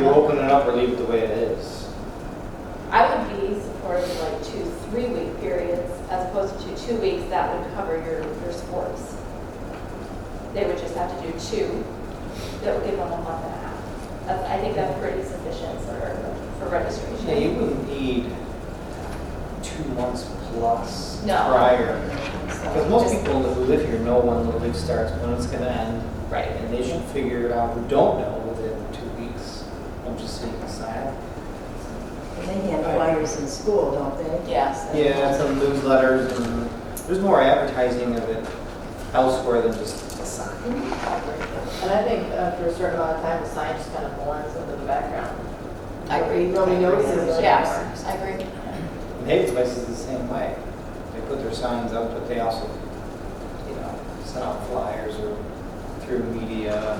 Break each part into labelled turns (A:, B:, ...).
A: either open it up or leave it the way it is.
B: I would be supportive of like two, three-week periods as opposed to two weeks that would cover your, your sports. They would just have to do two. That would give them a month and a half. That's- I think that's pretty sufficient for, for
A: Yeah, you
B: registration.
A: wouldn't need two months plus
B: No.
A: prior.
B: So
A: Because most
B: just-
A: people who live here know when Little League starts, when it's gonna end,
B: Right.
A: and they should figure it out who don't know within two weeks. I'm just saying, it's not.
C: And they hand flyers in school, don't they?
B: Yes.
A: Yeah, and some newsletters, and there's more advertising of it elsewhere than just a sign.
B: Mm-hmm.
D: And I think after a certain amount of time, the sign just kind of blends into the background.
C: I agree.
D: Nobody notices it.
B: Yeah, I agree.
A: And Haven Place is the same way. They put their signs up, but they also, you know, send out flyers or through media.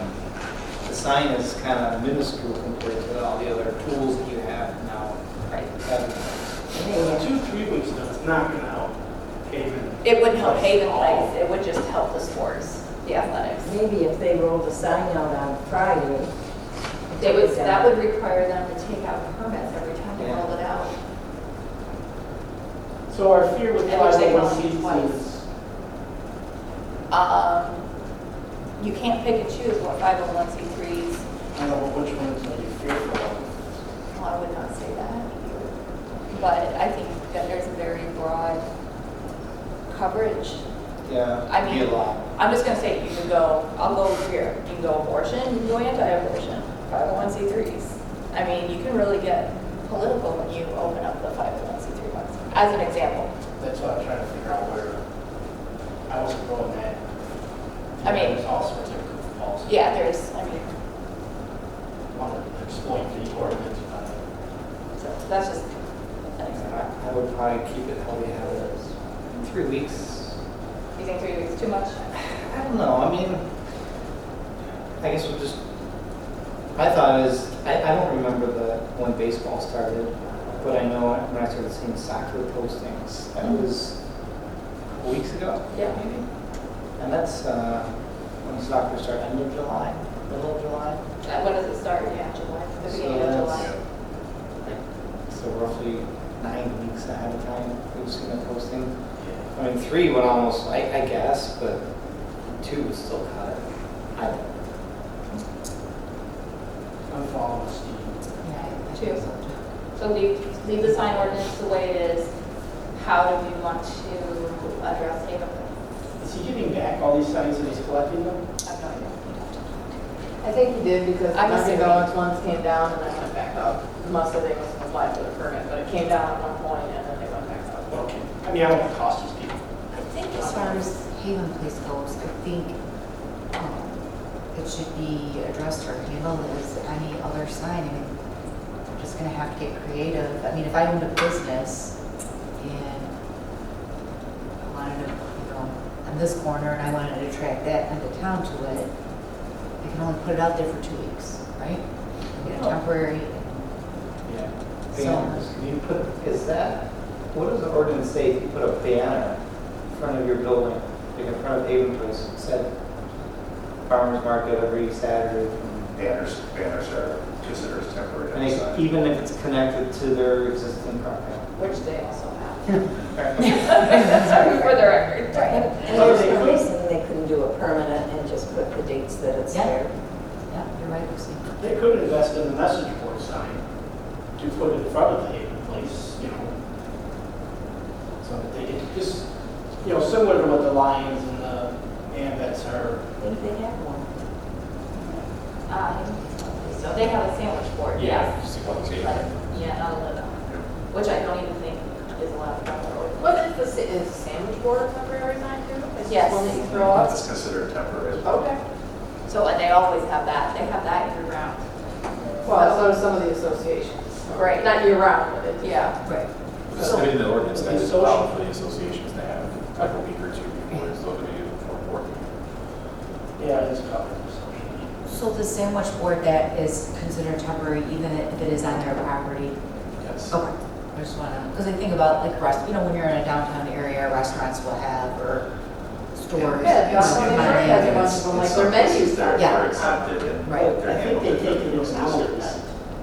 A: The sign is kind of minuscule compared to all the other tools that you have now.
B: Right.
C: And they
E: Well,
C: hand-
E: two, three weeks, now, it's not gonna help Haven.
B: It would help Haven
E: at all.
B: Place, it would just help the sports, the athletics.
C: Maybe if they roll the sign out on Friday.
B: They would, that would require them to take out permits every time they
A: Yeah.
B: rolled it out.
E: So our fear with
B: And which they
E: 501c3
B: want
E: is
B: Um, You can't pick and choose what 501c3s,
E: I don't know which one is gonna be fearful of.
B: well, I would not say that. But I think that there's a very broad coverage.
A: Yeah,
B: I
A: it'd be a
B: mean-
A: lot.
B: I'm just gonna say, you can go, I'll go over here, you can go abortion, you can go anti-abortion, 501c3s. I mean, you can really get political when you open up the 501c3 ones, as an example.
E: That's what I'm trying to figure out where, I wasn't going that.
B: I mean-
E: There's all sorts of policies.
B: Yeah, there's, I mean,
E: Want to exploit the ordinance, but
B: so that's just an example.
A: I would probably keep it how we have it. Three weeks,
B: You think three weeks is too much?
A: I don't know, I mean, I guess we'll just, my thought is, I, I don't remember the, when baseball started, but I know when I started seeing soccer postings, that was weeks ago,
B: Yeah.
A: maybe? And that's, uh, when soccer started, end of July, middle of July?
B: Uh, When does it start? Yeah, July, the
A: So
B: beginning of
A: that's-
B: July.
A: So roughly nine weeks ahead of time, we've seen a posting. I mean, three would almost, I, I guess, but two would still cut it. I don't know.
E: I'm following Steve.
B: Two. So leave, leave the sign ordinance the way it is. How do we want to address it? I
E: Is he giving back all these signs that he's collecting them?
B: have no idea.
D: I think he did because
B: I'm
D: Dunkin'
B: assuming.
D: Donuts once came down and then went back up. Must have, they must have applied for the permit, but it came down at one point and then they went back up.
E: Okay. I mean, I don't want to cost you, Steve.
F: I think as far as Haven Place goes, I think um, it should be addressed or handled as any other sign. I mean, we're just gonna have to get creative. I mean, if I owned a business and I wanted to, you know, on this corner and I wanted to attract that end of town to it, I can only put it out there for two weeks, right? Get a temporary,
A: Yeah.
F: So-
A: Banners, you put, is that, what does the ordinance say if you put a banner in front of your building, like in front of Haven Place, it said farmer's market every Saturday?
G: Banners, banners are considered as temporary.
A: And it's-
G: outside.
A: even if it's connected to their existing property?
B: Which they also have.
A: Right.
B: For the record.
C: And there's no reason they couldn't do a permanent and just put the dates that it's
F: Yeah.
C: there.
F: yeah, you're right, Lucy.
E: They could invest in the message board sign to put in front of the Haven Place, you know. So that they could just, you know, similar to what the Lions and the Ambets are.
C: I think they have one.
B: Um, So they have a sandwich board, yes.
G: Just a couple of-
B: But, Yeah, not a little, which I don't even think is allowed by the ordinance.
D: Wasn't the, sa- is sandwich board a temporary sign too? It's just
B: Yes.
D: one that you throw up?
G: It's considered temporary. as well.
D: Okay.
B: So, and they always have that, they have that year round.
D: Well, so do some of the associations.
B: Right.
D: Not year round, but it's.
B: Yeah.
F: Right.
H: Just put in the ordinance that it's
E: Social-
H: allowed for the associations to have like a week or two before it's limited for work.
E: Yeah, it's covered in social media.
F: So the sandwich board that is considered temporary, even if it is on their property,
H: Yes.
F: Okay, I just wanna, because I think about like rest, you know, when you're in a downtown area, restaurants will have, or stores.
D: Yeah,
F: you know,
D: Dunkin' Donuts
F: buy
D: has a
F: in.
D: bunch of them, like
G: It's
D: their
G: something
D: menus
G: that
D: there.
F: Yeah.
G: Are accepted and.
F: Right.
G: they're
E: I think
G: handled
E: they
G: in
E: take it
G: a
E: as an
G: specific